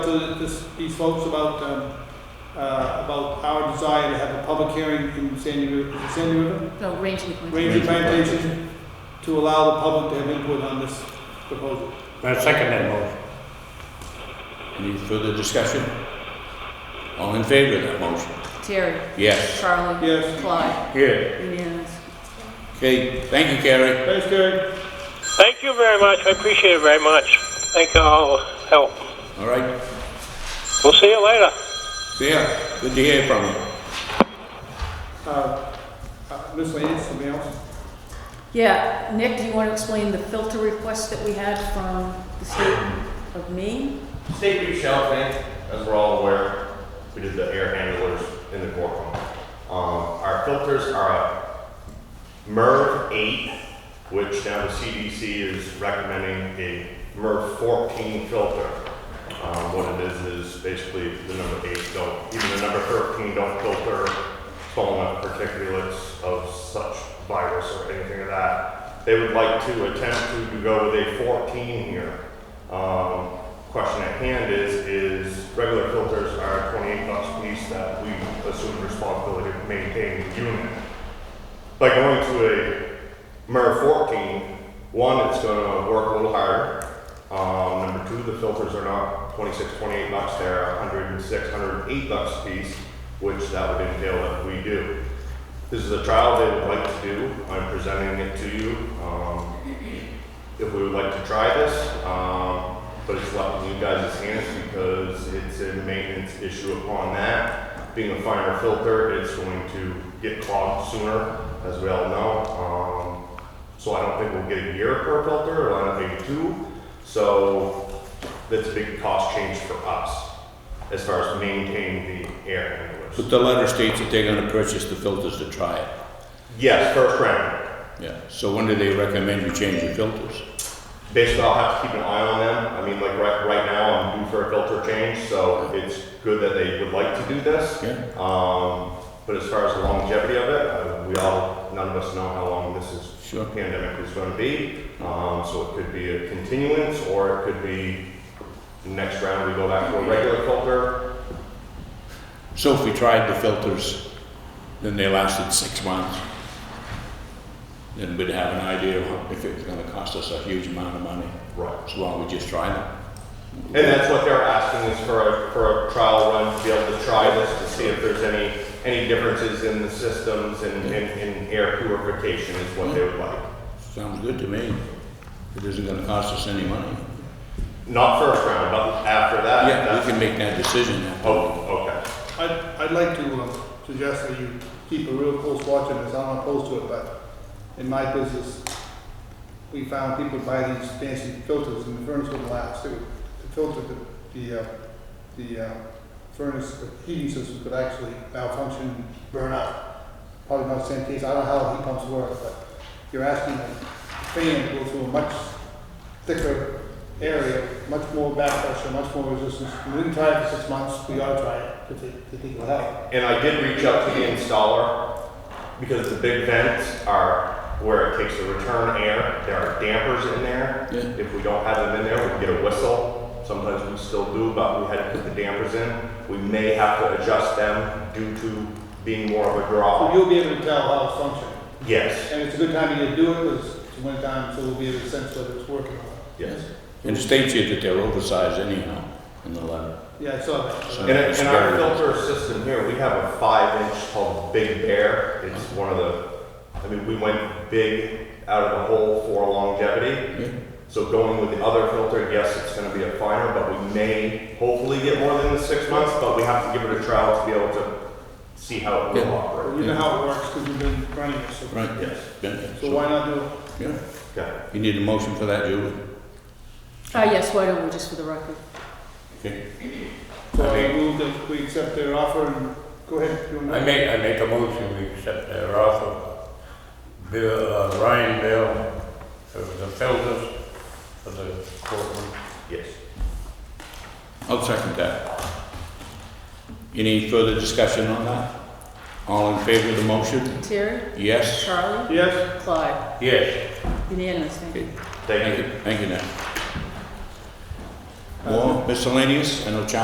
to the- this, these folks about, um, uh, about our desire to have a public hearing in Sandy River, is it Sandy River? No, Rangeley Plantation. Ranger Plantation, to allow the public to have input on this proposal. I second that motion. Any further discussion? All in favor of that motion? Terry, Yes. Charlie, Yes, Clyde, Yeah. unanimous. Okay, thank you, Carrie. thanks, Gary. Thank you very much. I appreciate it very much. Thank you all help. All right, We'll see you later. see ya. Good to hear from you. Uh, uh, Ms. Lance, something else? Yeah, Nick, do you want to explain the filter request that we had from the state of Maine? State beach shelving, as we're all aware, we did the air handlers in the courtroom. Um, our filters are a MERV eight, which now the CDC is recommending a MERV fourteen filter. Um, what it is, is basically the number eight don't, even the number thirteen don't filter foam particulates of such virus or anything of that. They would like to attempt to go with a fourteen here. Um, question at hand is, is regular filters are twenty-eight bucks a piece that we assume responsibility of maintaining the unit. By going to a MER fourteen, one, it's gonna work a little harder. Um, number two, the filters are not 26, 28 bucks, they're 106, 108 bucks a piece, which that would entail that we do. This is a trial they would like to do, I'm presenting it to you. Um, if we would like to try this, um, but it's left in you guys' hands because it's a maintenance issue upon that. Being a finer filter, it's going to get clogged sooner, as we all know. Um, so I don't think we'll get a year per filter, or I don't think two. So that's a big cost change for us as far as maintaining the air handlers. But the letter states that they're gonna purchase the filters to try it. Yes, first round. Yeah, so when do they recommend you change your filters? Basically, I'll have to keep an eye on them. I mean, like right, right now, I'm due for a filter change, so it's good that they would like to do this. Yeah. Um, but as far as the longevity of it, uh, we all, none of us know how long this is Sure. pandemic is going to be. Um, so it could be a continuance, or it could be next round we go back to a regular filter. So if we tried the filters, then they lasted six months, then we'd have an idea of how- if it's gonna cost us a huge amount of money. Right. So why don't we just try them? And that's what they're asking is for a, for a trial run to be able to try this to see if there's any any differences in the systems and in, in air purification is what they would like. Sounds good to me. It isn't gonna cost us any money. Not first round, but after that. Yeah, that's- we can make that decision. after. Oh, okay. I'd, I'd like to um, suggest that you keep a real close watch on this, I'm not opposed to it, but in my business, we found people buy these fancy filters and the furnace wouldn't last, It would- the filter, the, the, uh, the uh, furnace, the heating system could actually malfunction, and burn out. Probably not the same case, I don't know how heat pumps work, but you're asking a fan to go through a much thicker area, much more back pressure, much more resistance. We didn't try it for six months, we ought to try it to think, to think will help. And I did reach out to the installer because the big vents are where it takes the return air. There are dampers in there. Yeah. If we don't have them in there, we get a whistle. Sometimes we still do, but we had to put the dampers in. We may have to adjust them due to being more of a So draw. you'll be able to tell how it's functioning. Yes, And it's a good time to get to do it, because it's winter time, so we'll be able to sense whether it's working or not. yes. And it states here that they're oversized anyhow in the letter. Yeah, I saw that. So- In, in our filter system here, we have a five inch called Big Bear. It's one of the, I mean, we went big out of the hole for longevity. Yeah. So going with the other filter, yes, it's gonna be a finer, but we may hopefully get more than the six months, but we have to give it a trial to be able to see how it will Yeah. operate. You know how it works, because we've been running it, so. Right, Yes. yeah, So why not do it? Yeah, Okay. you need a motion for that, Julie? Ah, yes, why don't we, just for the record? Okay. So I move that we accept their offer and go ahead. do I it. make, I make a motion, we accept their offer. Bill, uh, Ryan Bill, for the filters, for the courtroom. Yes. I'll second that. Any further discussion on that? All in favor of the motion? Terry, Yes? Charlie, Yes, Clyde, Yes, unanimous, thank you. Okay. Thank you. Thank you, Nick. More miscellaneous, I know Charlie